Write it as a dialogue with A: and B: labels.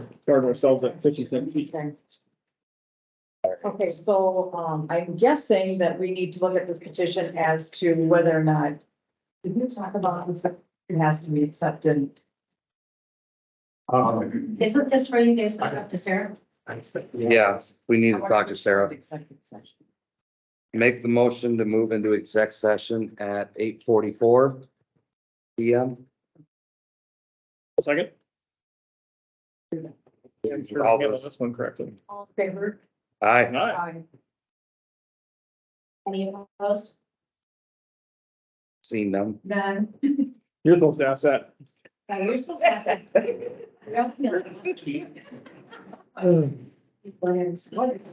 A: start ourselves at fifty-seven feet.
B: Okay, so, um, I'm guessing that we need to look at this petition as to whether or not. Did we talk about this, it has to be accepted?
A: Um,
C: Isn't this where you guys got up to Sarah?
D: Yes, we need to talk to Sarah.
B: Executive session.
D: Make the motion to move into exec session at eight forty-four. PM.
A: second? Yeah, I'm sure I handled this one correctly.
C: All in favor?
D: Aye.
A: Aye.
B: Aye.
C: Any opposed?
D: seen them.
C: None.
A: You're supposed to ask that.
C: Now, you're supposed to ask that. I was gonna- Plans. What?